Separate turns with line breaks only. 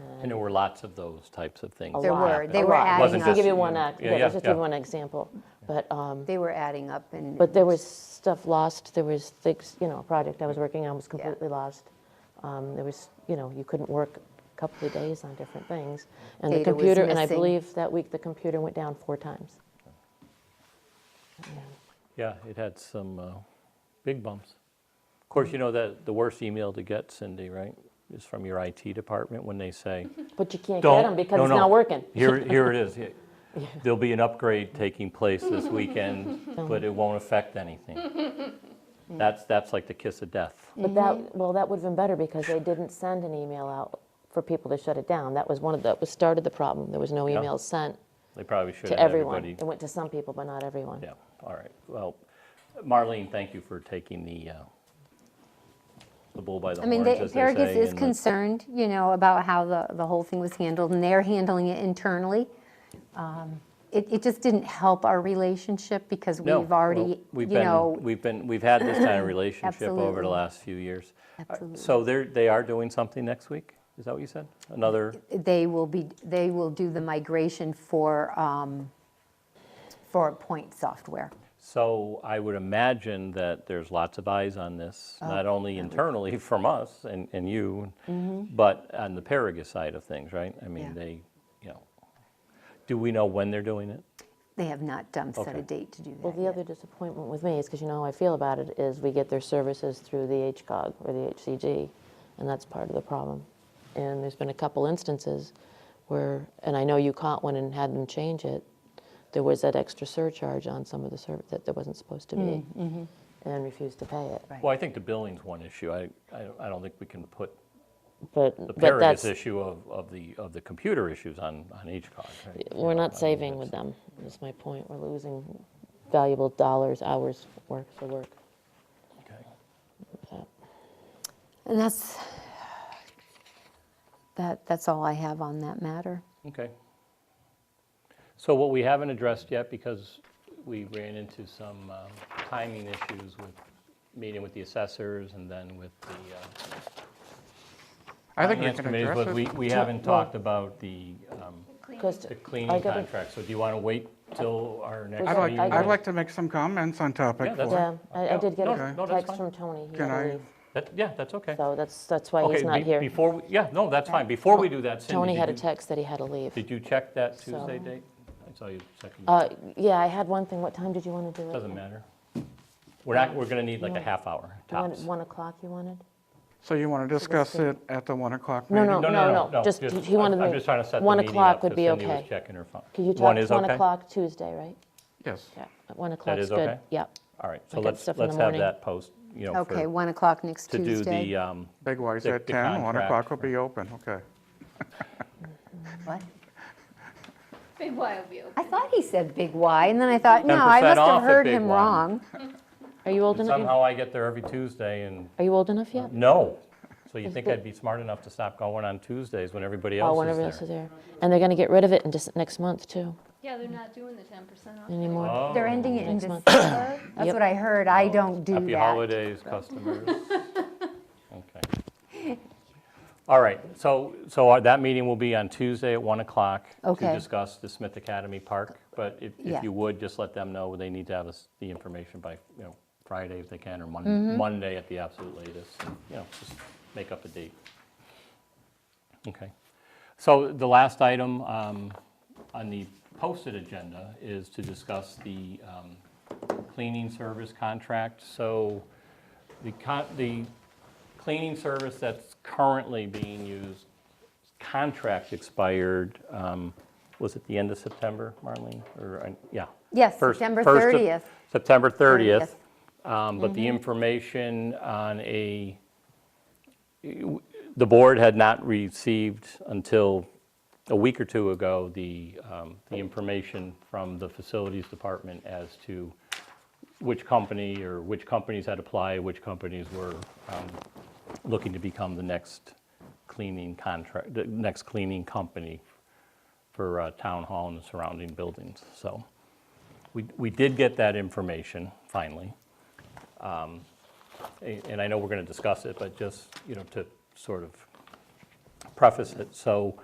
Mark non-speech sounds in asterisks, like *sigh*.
And there were lots of those types of things.
A
that
lot.
were.
happened.
They
A
were
lot.
adding
Wasn't
Just to give you
just
one,
you.
uh,
Yeah,
yeah,
yeah,
just to give
yeah.
one example. But, um,
They were adding up and.
but there was stuff lost, there was things, you know, a project I was working on was completely lost. Um, There was, you know, you couldn't work a couple of days on different things. And the
Data was
computer, and I
missing.
believe that week the computer went down four times.
Yeah, it had some uh, big bumps. Of course, you know that the worst email to get, Cindy, right, is from your IT department when they say,
But you can't get
don't.
them because
no,
it's
no.
not working.
Here, here it
*laughs*
is. Here- There'll be an upgrade taking place this weekend, but it won't affect anything.
*laughs*
That's, that's like the kiss of death.
But
Mm-hmm.
that, well, that would have been better because they didn't send an email out for people to shut it down. That was one of the, was started the problem. There was no
Yeah.
emails sent
They probably should
to
have
everyone.
everybody.
It went to some people, but not everyone.
Yeah, all right. Well, Marlene, thank you for taking the, uh, the bull by the
I mean,
horns,
the
as they
Paragus
say.
is
and the-
concerned, you know, about how the, the whole thing was handled, and they're handling it internally. Um, It, it just didn't help our relationship because
No,
we've already,
well,
you
we've been-
know,
We've been, we've had this
*clears throat*
kind of relationship over
Absolutely.
the last few years. Uh,
Absolutely.
So they're, they are doing something next week? Is that what you said? Another,
they will be, they will do the migration for, um, for point software.
so I would imagine that there's lots of eyes on this,
Oh,
not only internally *laughs* from us and, and you, but on the Paragus side of things, right? I mean,
Mm-hmm. Yeah.
they, you know, do we know when they're doing it?
They have not um, set
Okay.
a date to do
Well,
that
the
yet.
other disappointment with me is, because you know how I feel about it, is we get their services through the HCOG or the HCG, and that's part of the problem. And there's been a couple instances where, and I know you caught one and had them change it, there was that extra surcharge on some of the service that there wasn't supposed to be, and refused to pay it.
Right.
Well, I think the billing's one issue. I, I don't- I don't think we can put
But,
the
but
Paragus
that's,
issue of, of the, of the computer issues on, on HCOG, right? You
we're
know, I
not
mean,
saving
it's-
with them, is my point. We're losing valuable dollars, hours, worth of work.
Okay.
And that's, that, that's all I have on that matter.
Okay. So what we haven't addressed yet, because we ran into some um, timing issues with meeting with the assessors and then with the uh,
I think we
finance
can
committees,
address
but we,
it.
we haven't talked about the um,
'Cause
the
I
cleaning
gotta-
contract. So do you want to wait till our next
I'd like,
meeting?
I'd like to make some comments on topic
Yeah, that's-
four.
Yeah, I I did get
No, no,
a
that's
text
fine.
from Tony. He had
Can
to
I-
leave.
That- Yeah, that's okay.
So that's, that's why Oh, he's
Okay,
not
be-
here. Oh,
before, we- yeah, no, that's fine. Before we do that, Cindy.
Tony
did
had a
you-
text that he had to leave.
Did you check that
So-
Tuesday date? I saw you second.
Uh, Yeah, I had one thing. What time did you want to do it?
Doesn't matter. We're not, we're going to need like a half hour
One-
tops.
One o'clock you wanted?
So you want to discuss it at the 1 o'clock
No,
meeting?
no. just- he wanted
I'm- I'm
me-
just trying to set the
one
meeting
o'clock
up,
would
'cause
be
Cindy was
okay.
checking her phone.
Could you talk
One is
1
okay?
o'clock Tuesday, right?
Yes.
Yeah, at 1 o'clock's
is
good.
okay?
Yep.
All right, so
got
let's,
stuff in the
let's have
morning.
that post, you know,
Okay,
for,
1 o'clock next
to
Tuesday.
do the, um,
Big Y's
The-
at
the
10, 1
contract.
o'clock will be open, okay.
What?
Big Y will be open.
I thought he said big Y, and then I thought, no, I
10%
must
off
have
at
heard
Big
him
Y.
wrong.
Are you old enough?
somehow I get there every Tuesday and,
Are you old enough yet?
no. So you think I'd be smart enough to stop going on Tuesdays when everybody
Oh,
else
one of us
is
is
there?
there. And they're going to get rid of it in just next month, too,
Yeah, they're not doing the ten percent off.
anymore.
Oh,
They're ending it in
Next month.
December. That's
Yep.
what I heard. I don't do
Happy
that.
holidays, customers. *laughs* Okay. All right, so, so our- that meeting will be on Tuesday at 1 o'clock to
Okay.
discuss the Smith Academy Park, but if,
Yeah.
if you would, just let them know they need to have us, the information by, you know, Friday if they can, or
Mm-hmm.
Mon- Monday at the absolute latest, and, you know, just make up a date. Okay. So the last item um, on the posted agenda is to discuss the um, cleaning service contract. So the con- the cleaning service that's currently being used, contract expired, um, was it the end of September, Marlene? Or, uh, yeah.
Yes,
First-
September
first of-
30th.
September 30th. Um, But
Mm-hmm.
the information on a, the board had not received until a week or two ago, the, um, the information from the facilities department as to which company or which companies had applied, which companies were um, looking to become the next cleaning contract, the next cleaning company for uh, town hall and the surrounding buildings. So we, we did get that information finally. Um, A- and I know we're going to discuss it, but just, you know, to sort of preface it. So